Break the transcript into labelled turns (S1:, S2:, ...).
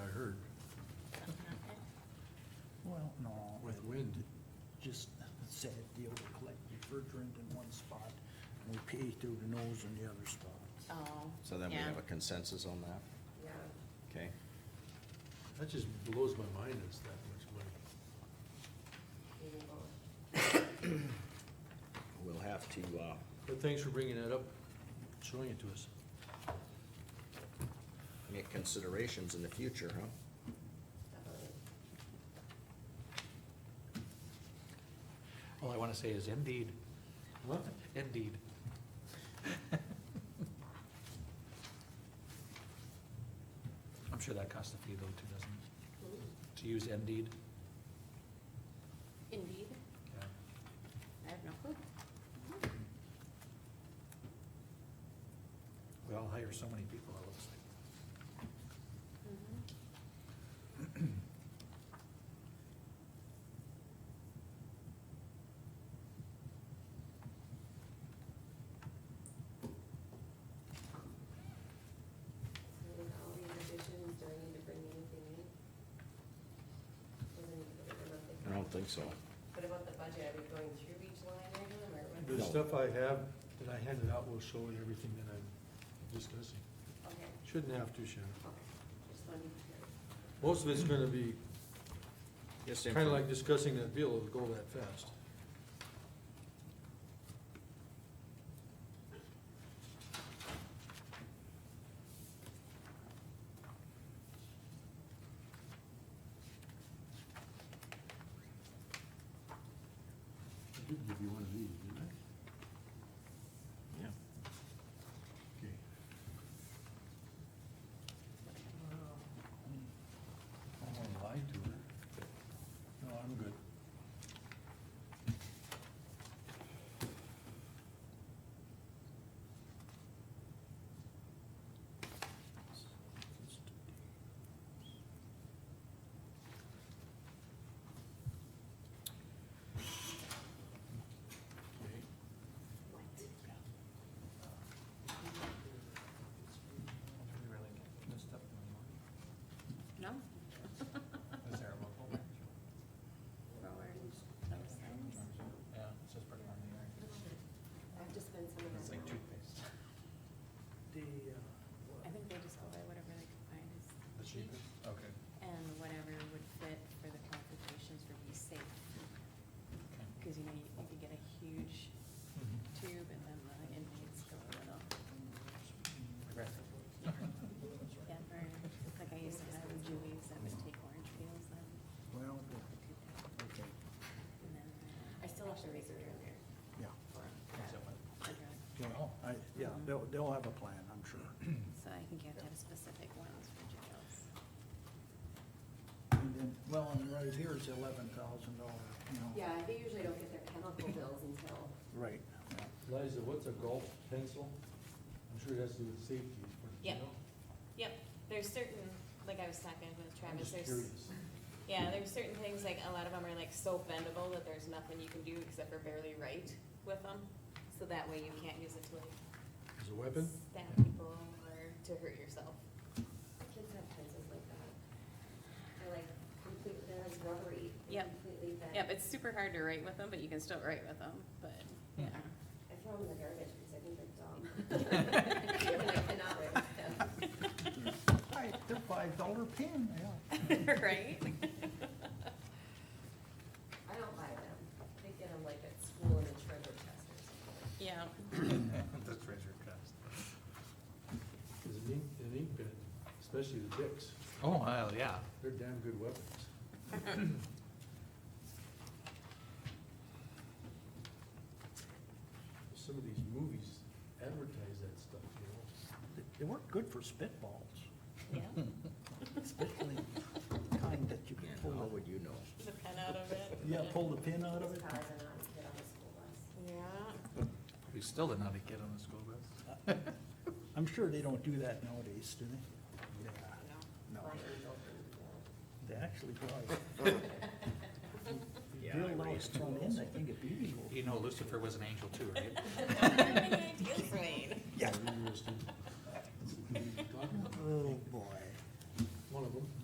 S1: just sad deal to collect refrigerant in one spot, and we pay through the nose in the other spot.
S2: Oh.
S3: So then we
S2: yeah.
S3: have a consensus on that? Okay,
S4: That just blows my mind, it's that much money.
S3: we'll have to, uh,
S4: But thanks for bringing that up, showing it to us.
S3: make considerations in the future, huh?
S5: All I want to say is indeed. What? Indeed. I'm sure that costs a fee though too, doesn't it? To use Indeed?
S2: Indeed,
S5: Yeah.
S2: I have no clue.
S5: We all hire so many people, it looks like.
S6: So with all these additions, do I need to bring anything in? Doesn't need to go to the monthly
S3: I don't think so.
S6: budget. What about the budget? Are we going through each line item or what?
S4: The
S3: No.
S4: stuff I have, that I handed out will show you everything that I'm discussing.
S6: Okay,
S4: Shouldn't have to, Shannon.
S6: okay, just wanted to be sure.
S4: Most of it's gonna be
S3: Just
S4: kinda
S3: inform-
S4: like discussing that deal, it'll go that fast. I did give you one of these, didn't I?
S3: Yeah.
S4: Okay. I don't wanna lie to her. No, I'm good. Okay.
S2: No?
S7: Is there a local branch?
S2: Roland, those things.
S7: Yeah, it's just pretty on the air.
S6: I've just been some of
S7: It's
S6: them.
S7: like toothpaste.
S1: The, uh,
S2: I think they just go by whatever they can find is
S7: The cheapest? Okay.
S2: and whatever would fit for the qualifications would be safe.
S7: Okay.
S2: Cause you know, you you could get a huge tube and then the inmates go a little. Yeah, or like I used to have in Julie's, I would take orange peels then.
S1: well,
S2: cook that,
S1: okay,
S2: and then, uh,
S6: I still have to research in there.
S1: yeah,
S7: Is that what?
S2: a drug.
S1: okay, Oh, I, yeah, they'll, they'll have a plan, I'm sure.
S2: So I think you have to have specific ones for jails.
S1: And then, well, and right here is eleven thousand dollar, you know.
S6: Yeah, they usually don't get their chemical bills until,
S1: Right, yeah.
S4: Liza, what's a golf pencil? I'm sure it has to do with safety. but, you
S2: Yep.
S4: know,
S2: Yep, there's certain, like I was talking with
S4: I'm just
S2: Travis, there's,
S4: curious.
S2: yeah, there's certain things, like a lot of them are like so bendable that there's nothing you can do except for barely write with them. So that way you can't use it to like
S4: As a weapon?
S2: stab people or to hurt yourself.
S6: kids have pencils like that. They're like completely, they're like rubbery. They
S2: Yep.
S6: Completely bent.
S2: Yep, it's super hard to write with them, but you can still write with them, but, yeah.
S4: Hmm.
S6: I throw them in the garbage because I think they're dumb. And I cannot write with them.
S1: Right, they're five dollar pin, yeah.
S2: Right?
S6: I don't buy them. They get them like at school in the treasure chest or something.
S2: Yeah.
S7: The treasure chest.
S4: As an ink, an ink pen, especially the dicks,
S5: Oh, well, yeah.
S4: they're damn good weapons. Some of these movies advertise that stuff, you know?
S1: They- They weren't good for spitballs,
S2: Yeah.
S1: especially the kind that you
S3: Yeah,
S1: could
S3: how
S1: pull
S3: would you know?
S2: The pen out of it.
S1: the, Oh, yeah, pull the pin out of
S6: Those
S1: it.
S6: cars are not fit on the school bus.
S2: Yeah.
S5: We still didn't have a kid on the school bus.
S1: I'm sure they don't do that nowadays, do they? Yeah, no,
S6: Mine is open, so.
S1: they actually probably.
S3: Yeah, I
S1: Build those
S3: raised
S1: front ends, I think it'd be equal.
S5: You know Lucifer was an angel too, right?
S2: Gilsrain.
S1: Yeah.
S4: Interesting.
S1: Oh,